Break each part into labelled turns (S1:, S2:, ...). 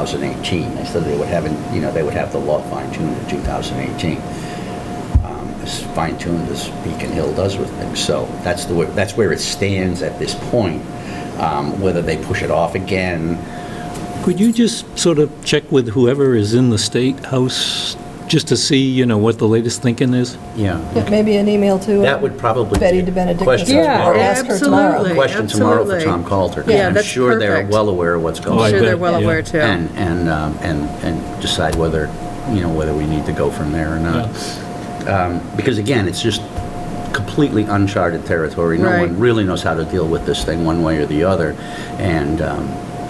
S1: 2018. They said they would have, it- you know, they would have the law fine-tuned in 2018. Um, As fine-tuned as Beacon Hill does with things. So that's the, way- that's where it stands at this point. Um, Whether they push it off again,
S2: Could you just sort of check with whoever is in the State House, just to see, you know, what the latest thinking is?
S1: yeah.
S3: Yeah, Maybe an email to. uh,
S1: That would probably be
S3: Betty
S1: a
S3: De Benedictis.
S1: question
S3: or
S1: tomorrow. Yeah,
S3: ask her tomorrow.
S4: absolutely.
S1: Question tomorrow for
S4: absolutely.
S1: Tom Coulter. 'cause
S4: Yeah, that's
S1: I'm sure they're
S4: perfect.
S1: well aware of what's going
S2: Oh, I
S1: on.
S4: I'm sure they're
S2: bet,
S4: well
S2: yeah.
S4: aware, too.
S1: and, and, um, and, and decide whether, you know, whether we need to go from there or not. Um, Because again, it's just completely uncharted territory. No
S4: Right.
S1: one really knows how to deal with this thing one way or the other. And, um,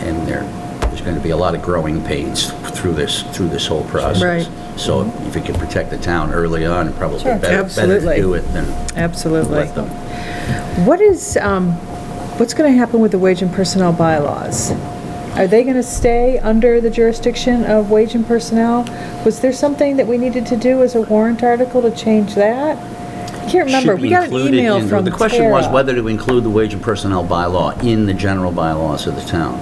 S1: and there, there's going to be a lot of growing pains through this, through this whole process.
S4: Right.
S1: So if we can protect the town early on, it probably
S3: Sure.
S1: better, better to
S4: Absolutely.
S1: do it than
S4: Absolutely.
S1: let them.
S4: What is, um, what's going to happen with the wage and personnel bylaws? Are they going to stay under the jurisdiction of wage and personnel? Was there something that we needed to do as a warrant article to change that? I can't remember.
S1: Should
S4: We got an
S1: include it
S4: email
S1: in-
S4: from
S1: The question was
S4: Tara.
S1: whether to include the wage and personnel bylaw in the general bylaws of the town.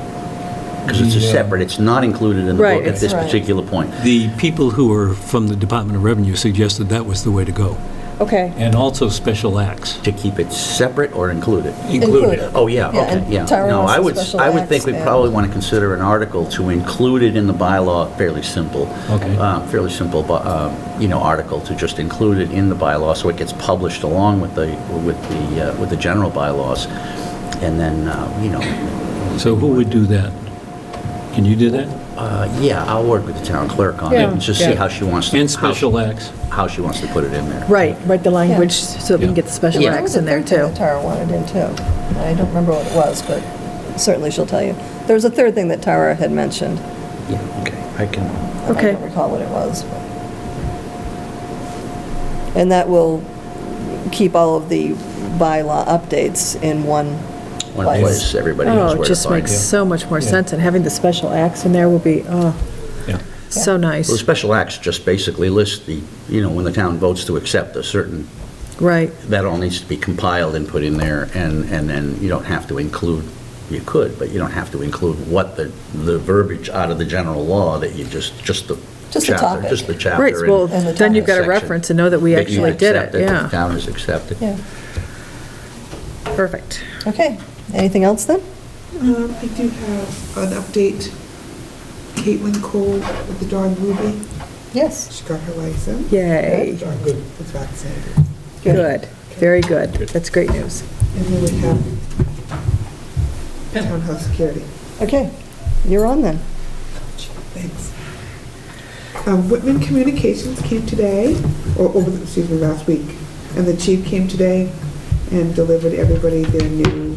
S1: Because it's a separate, it's not included in the
S4: Right,
S1: book at
S4: it's-
S1: this
S3: Right.
S1: particular point.
S2: The people who are from the Department of Revenue suggested that was the way to go,
S4: Okay.
S2: and also special acts
S1: To keep it separate or include it?
S2: included.
S3: Included.
S1: Oh, yeah,
S3: Yeah,
S1: okay,
S3: and
S1: yeah.
S3: Tara
S1: No,
S3: wants
S1: I
S3: the
S1: would,
S3: special
S1: I would think
S3: acts
S1: we
S3: and-
S1: probably want to consider an article to include it in the bylaw, fairly simple.
S2: Okay.
S1: uh, Fairly simple, bu- uh, you know, article to just include it in the bylaw so it gets published along with the, with the, uh, with the general bylaws. And then, uh, you know,
S2: So who would do that? Can you do that?
S1: Uh, Yeah, I'll work with the town clerk on it, and just see
S4: Yeah.
S1: how she wants to...
S2: And
S1: how-
S2: special acts?
S1: How she wants to put it in there.
S5: Right, write the language
S3: Yeah.
S5: so that we can get the special
S1: Yeah.
S3: There was
S5: acts
S3: a
S5: in there
S3: third thing
S5: too.
S3: that Tara wanted in too. I don't remember what it was, but certainly she'll tell you. There was a third thing that Tara had mentioned.
S1: Yeah, okay, I can...
S3: and I
S5: Okay.
S3: don't recall what it was. but- And that will keep all of the bylaw updates in one
S1: One
S3: place.
S1: place, everybody knows
S5: Oh,
S1: where
S5: it
S1: to
S5: just
S1: find
S5: makes
S1: it.
S5: so much more sense, and having the special acts in there will be, oh,
S2: Yeah.
S5: so
S1: Well, the
S5: nice.
S1: special acts just basically list the, you know, when the town votes to accept a certain,
S5: Right,
S1: that all needs to be compiled and put in there, and, and then you don't have to include, you could, but you don't have to include what the, the verbiage out of the general law that you just, just the
S3: Just the
S1: chapter,
S3: topic.
S1: just the chapter.
S5: right, well,
S1: and
S3: And the
S5: then you've got a
S1: section
S5: reference to know that we
S1: that you
S5: actually did
S1: accept
S5: it,
S1: that The
S5: yeah.
S1: town has accepted.
S3: Yeah,
S5: Perfect.
S3: okay. Anything else then?
S6: Um, I do have an update. Caitlin Cole with the dog Ruby,
S3: Yes.
S6: she got her license.
S5: Yay.
S6: That Dog was vaccinated.
S5: Good, very good. That's great news.
S6: And then we have townhouse security.
S3: Okay, you're on then.
S6: Thanks. Um, Whitman Communications came today, or, over the- excuse me, last week, and the chief came today and delivered everybody their new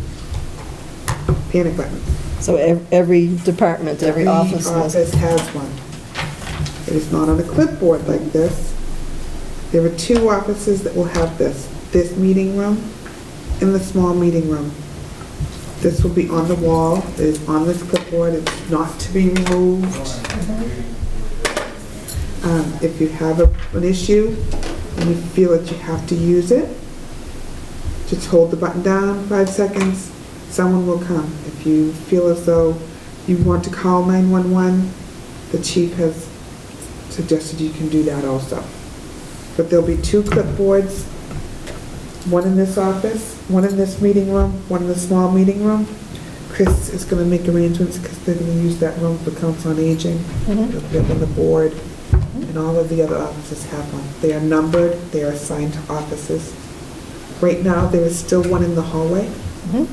S6: panic buttons.
S3: So ev- every department, every office has.
S6: office has one. It is not on a clipboard like this. There are two offices that will have this, this meeting room and the small meeting room. This will be on the wall, it is on this clipboard, it's not to be removed. Um, If you have a- an issue and you feel that you have to use it, just hold the button down five seconds, someone will come. If you feel as though you want to call 911, the chief has suggested you can do that also. But there'll be two clipboards, one in this office, one in this meeting room, one in the small meeting room. Chris is going to make arrangements because they're going to use that room for council on aging. They'll put it on the board, and all of the other offices have one. They are numbered, they are assigned to offices. Right now, there is still one in the hallway
S3: Mhm.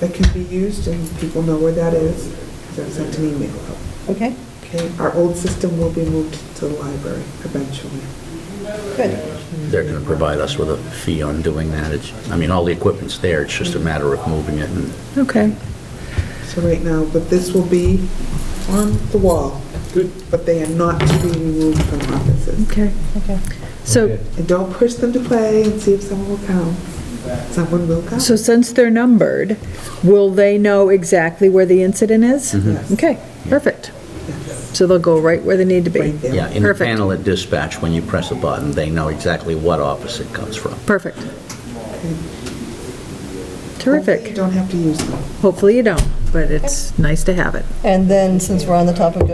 S6: that can be used, and people know where that is, because I've sent an email out.
S3: Okay,
S6: Okay, our old system will be moved to the library eventually.
S3: good.
S1: They're going to provide us with a fee on doing that. It's, I mean, all the equipment's there, it's just a matter of moving it and
S5: Okay,
S6: So right now, but this will be on the wall. Good. But they are not to be removed from offices.
S5: okay.
S3: Okay.
S5: So,
S6: And don't push them to play and see if someone will come. Someone will come.
S5: so since they're numbered, will they know exactly where the incident is?
S6: Yes.
S5: Okay, perfect.
S6: Yes.
S5: So they'll go right where they need to be.
S6: Right there.
S1: Yeah, in the
S5: Perfect.
S1: panel at dispatch, when you press a button, they know exactly what office it comes from.
S5: Perfect. Terrific.
S6: Hopefully you don't have to use them.
S5: Hopefully you don't. but it's nice to have it.
S3: And then, since we're on the topic of